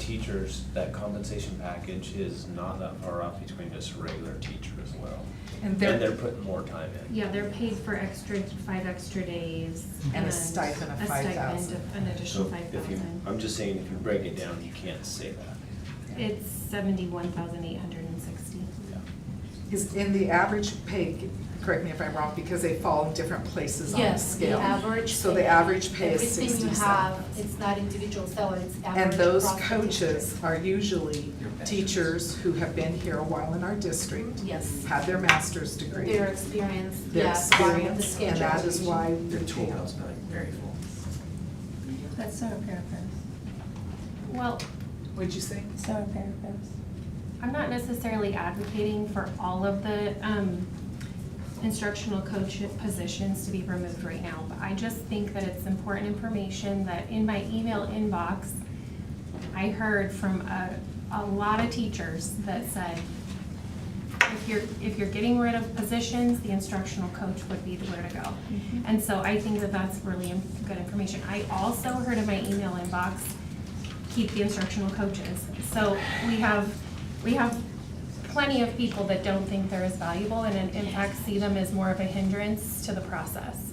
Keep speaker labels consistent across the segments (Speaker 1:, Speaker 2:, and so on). Speaker 1: teachers, that compensation package is not that far off between just a regular teacher as well.
Speaker 2: And
Speaker 1: And
Speaker 2: they're-
Speaker 1: they're putting more time in.
Speaker 3: Yeah, they're paid for extra, five extra days.
Speaker 2: And a stipend of
Speaker 3: a stipend
Speaker 2: 5,000.
Speaker 3: of An additional
Speaker 1: So
Speaker 3: five
Speaker 1: if you,
Speaker 3: thousand.
Speaker 1: I'm just saying, if you break it down, you can't say that.
Speaker 3: It's seventy-one thousand eight hundred and sixty.
Speaker 2: Is, in the average pay, correct me if I'm wrong, because they fall in different places on the
Speaker 4: Yes, the
Speaker 2: scale.
Speaker 4: average.
Speaker 2: So the
Speaker 4: pay,
Speaker 2: average pay is
Speaker 4: Everything you
Speaker 2: sixty-seven.
Speaker 4: have, Um, it's not individual salary, it's average.
Speaker 2: And those
Speaker 4: across the
Speaker 2: coaches
Speaker 4: district.
Speaker 2: are usually
Speaker 5: Your veterans.
Speaker 2: teachers who have been here a while in our district,
Speaker 4: Yes,
Speaker 2: have their master's degree.
Speaker 4: their experience,
Speaker 2: their
Speaker 4: yeah, bottom of the
Speaker 2: experience,
Speaker 4: schedule.
Speaker 2: And that is why
Speaker 5: Their
Speaker 2: they're
Speaker 5: tool
Speaker 2: paid.
Speaker 5: belt's not very full.
Speaker 6: That's so paraphrase.
Speaker 3: Well,
Speaker 2: What'd you say?
Speaker 6: So paraphrase.
Speaker 3: I'm not necessarily advocating for all of the um, instructional coach positions to be removed right now, but I just think that it's important information that in my email inbox, I heard from a, a lot of teachers that said, if you're, if you're getting rid of positions, the instructional coach would be where to go. And so I think that that's really im- good information. I also heard in my email inbox, keep the instructional coaches. So we have, we have plenty of people that don't think they're as valuable and in in fact see them as more of a hindrance to the process.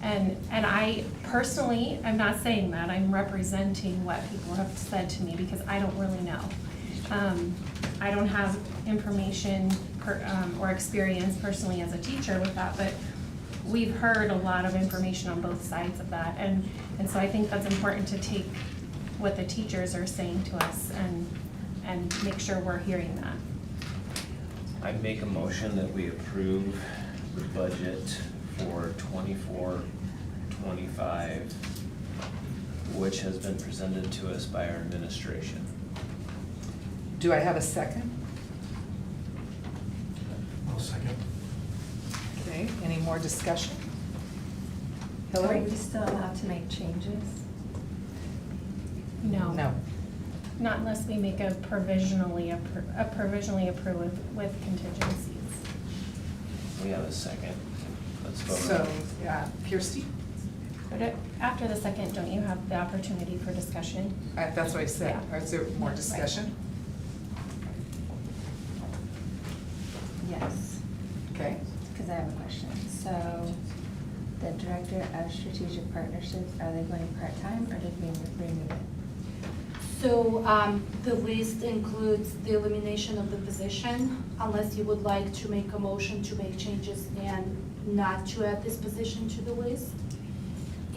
Speaker 3: And, and I personally, I'm not saying that, I'm representing what people have said to me because I don't really know. Um, I don't have information per, um, or experience personally as a teacher with that, but we've heard a lot of information on both sides of that. And, and so I think that's important to take what the teachers are saying to us and, and make sure we're hearing that.
Speaker 1: I make a motion that we approve the budget for twenty-four, twenty-five, which has been presented to us by our administration.
Speaker 2: Do I have a second?
Speaker 5: I'll second.
Speaker 2: Okay, any more discussion?
Speaker 6: Are
Speaker 2: Hillary?
Speaker 6: we still allowed to make changes?
Speaker 3: No.
Speaker 2: No.
Speaker 3: Not unless we make a provisionally, appro- a provisionally approve with- with contingencies.
Speaker 1: We have a second. Let's vote. on
Speaker 2: So,
Speaker 1: it.
Speaker 2: yeah, Kirsty,
Speaker 3: But a- after the second, don't you have the opportunity for discussion?
Speaker 2: Uh, that's what I said.
Speaker 3: Yeah.
Speaker 2: Is there more discussion?
Speaker 6: Yes,
Speaker 2: Okay.
Speaker 6: because I have a question. So the director of strategic partnerships, are they going part-time or did we remove it?
Speaker 4: So um, the list includes the elimination of the position, unless you would like to make a motion to make changes and not to add this position to the list,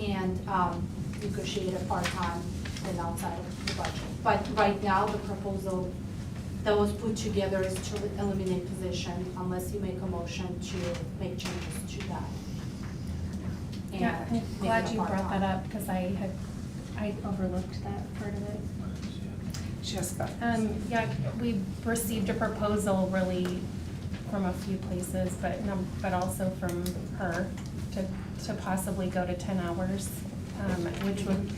Speaker 4: and um, negotiate a part-time and outside of the budget. But right now, the proposal that was put together is to eliminate position unless you make a motion to make changes to that. And
Speaker 3: Yeah, I'm
Speaker 4: make it a
Speaker 3: glad you brought
Speaker 4: part-time.
Speaker 3: that up because I had, I overlooked that part of it.
Speaker 2: Jessica?
Speaker 3: Um, yeah, we received a proposal really from a few places, but num, but also from her to, to possibly go to ten hours, um, which would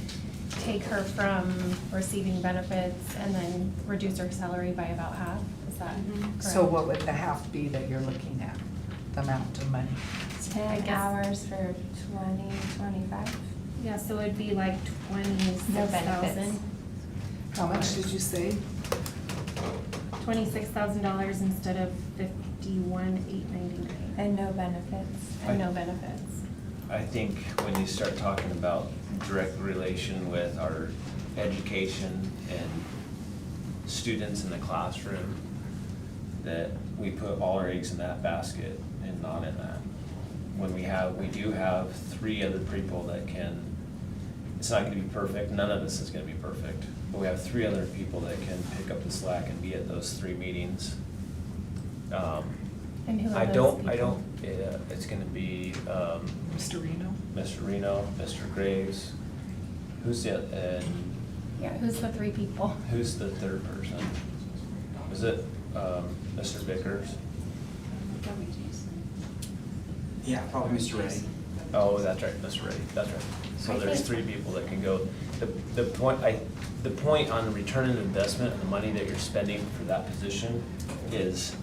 Speaker 3: take her from receiving benefits and then reduce her salary by about half, is that
Speaker 4: Mhm.
Speaker 3: correct?
Speaker 2: So what would the half be that you're looking at, the amount of money?
Speaker 3: I
Speaker 6: Ten
Speaker 3: guess-
Speaker 6: hours for twenty, twenty-five?
Speaker 3: Yeah, so it'd be like twenty-six thousand,
Speaker 2: How much did you say?
Speaker 3: twenty-six thousand dollars instead of fifty-one, eight ninety-nine,
Speaker 6: And no benefits.
Speaker 3: and no benefits.
Speaker 1: I think when you start talking about direct relation with our education and students in the classroom, that we put all our eggs in that basket and not in that. When we have, we do have three other people that can, it's not gonna be perfect, none of this is gonna be perfect, but we have three other people that can pick up the slack and be at those three meetings. Um,
Speaker 3: And who are
Speaker 1: I
Speaker 3: those
Speaker 1: don't, I
Speaker 3: people?
Speaker 1: don't, yeah, it's gonna be, um,
Speaker 2: Mr. Reno?
Speaker 1: Mr. Reno, Mr. Graves, who's the, and
Speaker 3: Yeah, who's the three people?
Speaker 1: who's the third person? Is it, um, Mr. Vickers?
Speaker 5: Yeah, probably Mr. Ray.
Speaker 1: Oh, that's right, Mr. Ray, that's right. So
Speaker 3: I
Speaker 1: there's three
Speaker 3: think-
Speaker 1: people that can go. The, the point, I, the point on the return on investment and the money that you're spending for that position is,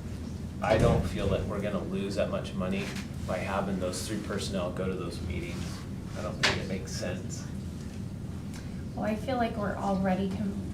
Speaker 1: I don't feel that we're gonna lose that much money by having those three personnel go to those meetings. I don't think it makes sense.
Speaker 3: Well, I feel like we're already com-